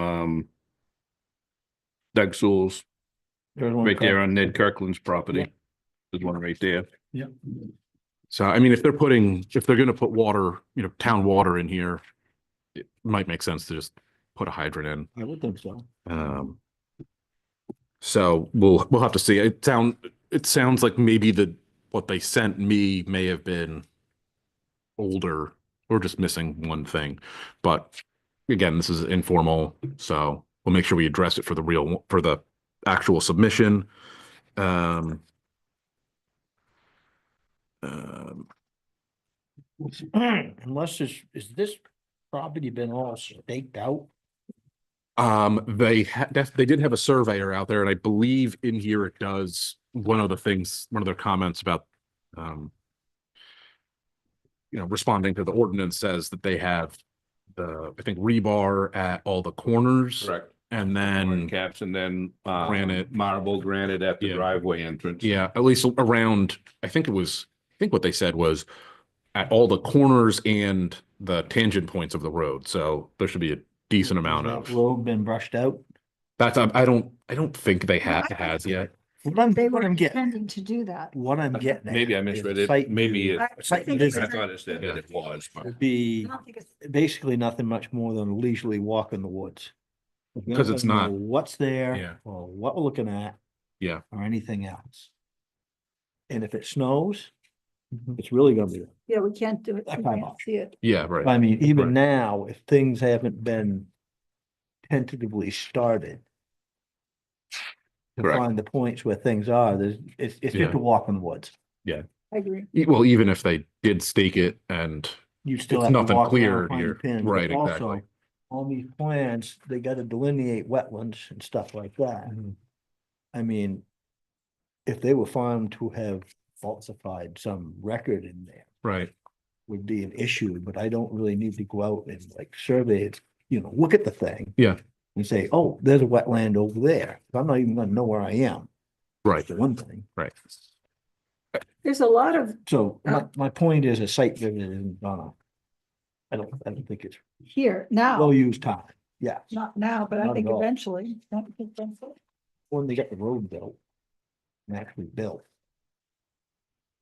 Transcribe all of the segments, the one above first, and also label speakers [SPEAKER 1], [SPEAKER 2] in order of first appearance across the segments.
[SPEAKER 1] um, Doug Sewell's,
[SPEAKER 2] There's one
[SPEAKER 1] right there
[SPEAKER 2] called-
[SPEAKER 1] on Ned Kirkland's
[SPEAKER 2] Yeah.
[SPEAKER 1] property. There's one right there.
[SPEAKER 2] Yeah,
[SPEAKER 3] So I mean, if they're putting, if they're gonna put water, you know, town water in here, it might make sense to just put a hydrant
[SPEAKER 2] I would think so.
[SPEAKER 3] in. Um. So we'll, we'll have to see. It sound, it sounds like maybe the, what they sent me may have been older or just missing one thing. But again, this is informal, so we'll make sure we address it for the real, for the actual submission. Um. Um,
[SPEAKER 2] Unless this, is this property been all staked out?
[SPEAKER 3] Um, they had, they did have a surveyor out there and I believe in here it does, one of the things, one of their comments about, um, you know, responding to the ordinance says that they have the, I think rebar at all the corners
[SPEAKER 1] Correct. And
[SPEAKER 3] and then,
[SPEAKER 1] caps and then, uh,
[SPEAKER 3] Granite.
[SPEAKER 1] marble granite at the
[SPEAKER 3] Yeah.
[SPEAKER 1] driveway entrance.
[SPEAKER 3] yeah, at least around, I think it was, I think what they said was at all the corners and the tangent points of the road. So there should be a decent amount
[SPEAKER 2] Has that
[SPEAKER 3] of,
[SPEAKER 2] Road been brushed out?
[SPEAKER 3] that's, um, I I don't, I don't think they have, has yet.
[SPEAKER 2] What I'm,
[SPEAKER 4] They
[SPEAKER 2] what
[SPEAKER 4] were
[SPEAKER 2] I'm getting,
[SPEAKER 4] intending to do that.
[SPEAKER 2] what I'm getting. at
[SPEAKER 1] Maybe I
[SPEAKER 2] is
[SPEAKER 1] misread it.
[SPEAKER 2] site
[SPEAKER 1] Maybe it.
[SPEAKER 2] review
[SPEAKER 4] I-
[SPEAKER 1] I
[SPEAKER 2] Site
[SPEAKER 4] think
[SPEAKER 2] visit
[SPEAKER 4] it's-
[SPEAKER 1] thought it said that it was, but
[SPEAKER 2] Would be
[SPEAKER 4] I don't think it's-
[SPEAKER 2] basically nothing much more than a leisurely walk in the woods. We
[SPEAKER 3] 'Cause it's
[SPEAKER 2] don't know
[SPEAKER 3] not-
[SPEAKER 2] What's
[SPEAKER 3] Yeah.
[SPEAKER 2] there, or what we're looking at.
[SPEAKER 3] Yeah.
[SPEAKER 2] Or anything else. And if it snows, it's really gonna be,
[SPEAKER 4] Yeah, we can't do it.
[SPEAKER 2] That
[SPEAKER 4] We
[SPEAKER 2] kind
[SPEAKER 4] can't
[SPEAKER 2] of-
[SPEAKER 4] see it.
[SPEAKER 3] Yeah, right.
[SPEAKER 2] I mean, even
[SPEAKER 3] Right.
[SPEAKER 2] now, if things haven't been tentatively started. To
[SPEAKER 3] Correct.
[SPEAKER 2] find the points where things are, there's, it's, it's
[SPEAKER 3] Yeah.
[SPEAKER 2] just a walk in the woods.
[SPEAKER 4] I agree.
[SPEAKER 3] E- Well, even if they did stake it and,
[SPEAKER 2] You still
[SPEAKER 3] It's
[SPEAKER 2] have to
[SPEAKER 3] nothing
[SPEAKER 2] walk
[SPEAKER 3] clear
[SPEAKER 2] around, find
[SPEAKER 3] here.
[SPEAKER 2] a pin.
[SPEAKER 3] Right,
[SPEAKER 2] but also,
[SPEAKER 3] exactly.
[SPEAKER 2] On these plans, they gotta delineate wetlands and stuff like that.
[SPEAKER 3] Mm-hmm.
[SPEAKER 2] I mean, if they were found to have falsified some record in there
[SPEAKER 3] right,
[SPEAKER 2] would be an issue, but I don't really need to go out and like survey it, you know, look at the thing.
[SPEAKER 3] Yeah.
[SPEAKER 2] And say, oh, there's a wetland over there. I'm not even gonna know where I am.
[SPEAKER 3] right,
[SPEAKER 2] That's the one thing.
[SPEAKER 3] right.
[SPEAKER 4] There's a lot of
[SPEAKER 2] So my, my point is a site visit isn't gonna, I don't, I don't think it's
[SPEAKER 4] here now,
[SPEAKER 2] well used time. Yeah,
[SPEAKER 4] not now, but I
[SPEAKER 2] Not
[SPEAKER 4] think
[SPEAKER 2] at all.
[SPEAKER 4] eventually. Don't think that's it.
[SPEAKER 2] when they get the road built. And actually built.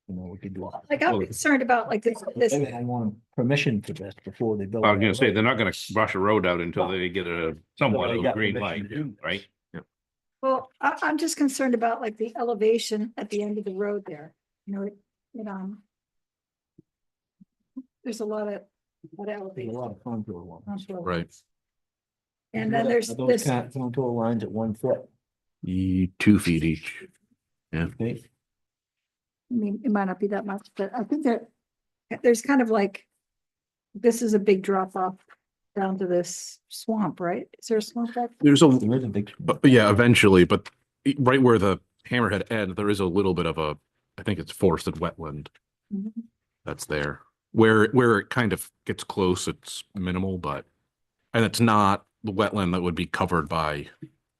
[SPEAKER 2] You know, we could do. all-
[SPEAKER 4] Like I'm concerned about like this, this,
[SPEAKER 2] Maybe I want permission for this before they build.
[SPEAKER 1] I was gonna
[SPEAKER 2] that
[SPEAKER 1] say,
[SPEAKER 2] road.
[SPEAKER 1] they're not gonna brush a road out until they get a
[SPEAKER 2] Until
[SPEAKER 1] somewhat
[SPEAKER 2] they
[SPEAKER 1] of a
[SPEAKER 2] got
[SPEAKER 1] green
[SPEAKER 2] permission
[SPEAKER 1] light,
[SPEAKER 2] to do this.
[SPEAKER 1] right?
[SPEAKER 4] well, I, I'm just concerned about like the elevation at the end of the road there. You know, it, it, um, there's a lot of,
[SPEAKER 2] There's
[SPEAKER 4] lot of
[SPEAKER 2] a
[SPEAKER 4] elevation.
[SPEAKER 2] lot of contour lines.
[SPEAKER 4] onto it.
[SPEAKER 3] Right.
[SPEAKER 4] And then there's
[SPEAKER 2] Are Those
[SPEAKER 4] this,
[SPEAKER 2] kind- contour lines at one foot.
[SPEAKER 3] E, Two feet each.
[SPEAKER 2] Okay,
[SPEAKER 4] I mean, it might not be that much, but I think that there's kind of like, this is a big drop off down to this swamp, right? Is there a swamp back? there?
[SPEAKER 3] There's a,
[SPEAKER 2] there is a big.
[SPEAKER 3] but but yeah, eventually, but e- right where the hammerhead end, there is a little bit of a, I think it's forested wetland
[SPEAKER 4] Mhm.
[SPEAKER 3] that's there. Where, where it kind of gets close, it's minimal, but, and it's not the wetland that would be covered by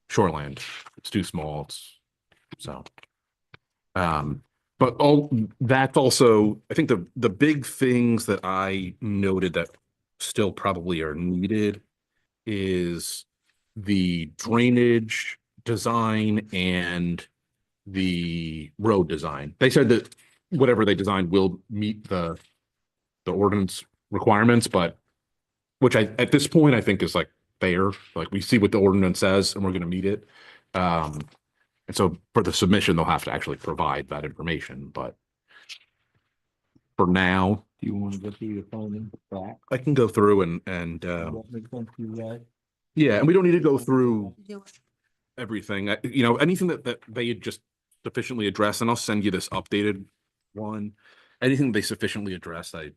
[SPEAKER 3] shoreland. It's too small, it's, so. Um, but all, that's also, I think the, the big things that I noted that still probably are needed is the drainage design and the road design. They said that whatever they designed will meet the the ordinance requirements, but which I, at this point, I think is like fair, like we see what the ordinance says and we're gonna meet it. Um, and so for the submission, they'll have to actually provide that information, but for now,
[SPEAKER 2] Do you want to go through your phone and back?
[SPEAKER 3] I can go through and, and, um,
[SPEAKER 2] What makes sense to you guys?
[SPEAKER 3] yeah, and we don't need to go through everything, I- you know, anything that, that they had just sufficiently addressed, and I'll send you this updated one. Anything they sufficiently addressed, I,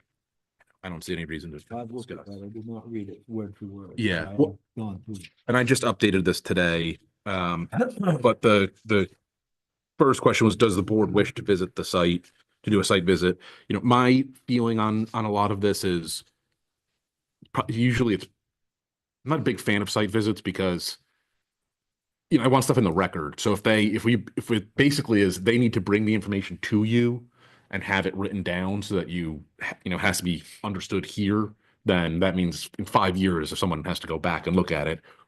[SPEAKER 3] I don't see any reason to.
[SPEAKER 2] I've looked at that. I did not read it word for word.
[SPEAKER 3] Yeah.
[SPEAKER 2] I've
[SPEAKER 3] Well-
[SPEAKER 2] Gone through.
[SPEAKER 3] And I just updated this today, um,
[SPEAKER 2] But
[SPEAKER 3] but the, the first question was, does the board wish to visit the site, to do a site visit? You know, my feeling on, on a lot of this is pro- usually it's, I'm not a big fan of site visits because you know, I want stuff in the record. So if they, if we, if it basically is, they need to bring the information to you and have it written down so that you, ha- you know, has to be understood here, then that means in five years, if someone has to go back and look at it,